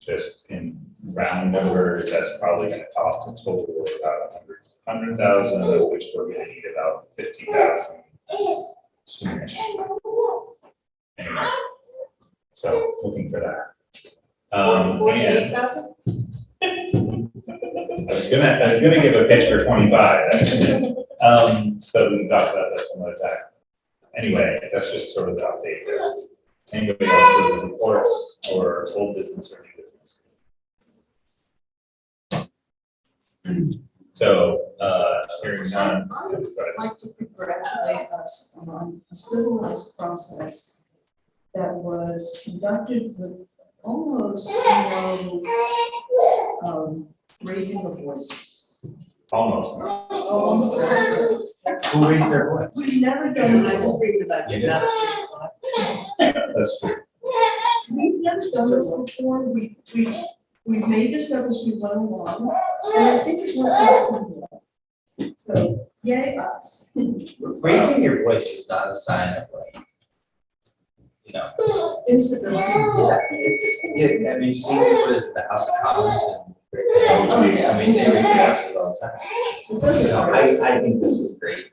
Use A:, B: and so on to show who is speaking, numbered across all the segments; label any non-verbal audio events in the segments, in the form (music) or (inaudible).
A: just in round numbers, that's probably gonna cost a total of about a hundred, hundred thousand, of which we're gonna need about fifty thousand soonish. Anyway, so looking for that. Um, and
B: Forty-eight thousand?
A: I was gonna, I was gonna give a pitch for twenty-five, um, but we can talk about that some other time. Anyway, that's just sort of the update there. Anybody else with reports or old business or new business? So, uh, hearing none, that's right.
C: I'd like to congratulate us on a civilized process that was conducted with almost no um, raising of voices.
A: almost, no.
D: Who raised their voice?
C: We've never done this before. that
D: You
C: you
D: did.
C: know.
A: that's true.
C: We've never done this before. We, we, we made this up as we went along, and I think it went well. So yay us.
D: Raising your voice is not a sign of like, you know,
C: Incivility.
D: yeah, it's, yeah, have you seen what is it, the House of Commons and. Oh, geez, I mean, they raise their voices all the time.
C: It
D: You
C: doesn't.
D: know, I, I think this was great.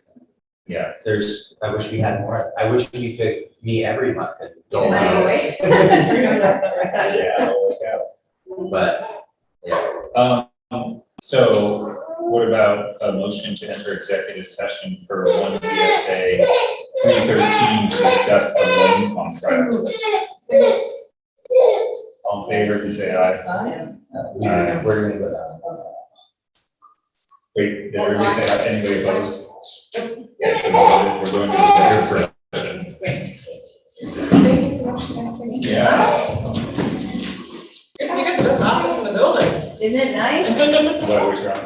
A: Yeah,
D: There's, I wish we had more. I wish we could meet every month and dole
A: Wow.
D: out.
C: (laughs)
A: (laughs) yeah, I'll look out.
D: But, yeah,
A: Um, so what about a motion to enter executive session for one VSA three thirteen to discuss the loan contract?
C: So,
A: All in favor, please say aye.
C: I-
D: uh, we-
A: Uh,
D: we're gonna go down.
A: Wait, did everybody say aye? Anybody opposed? Yeah, so we're we're going to executive session.
B: Thank you so much, guys. Thank you.
A: Yeah,
B: Here's the good, that's office in the building.
E: Isn't it nice?
A: what was wrong?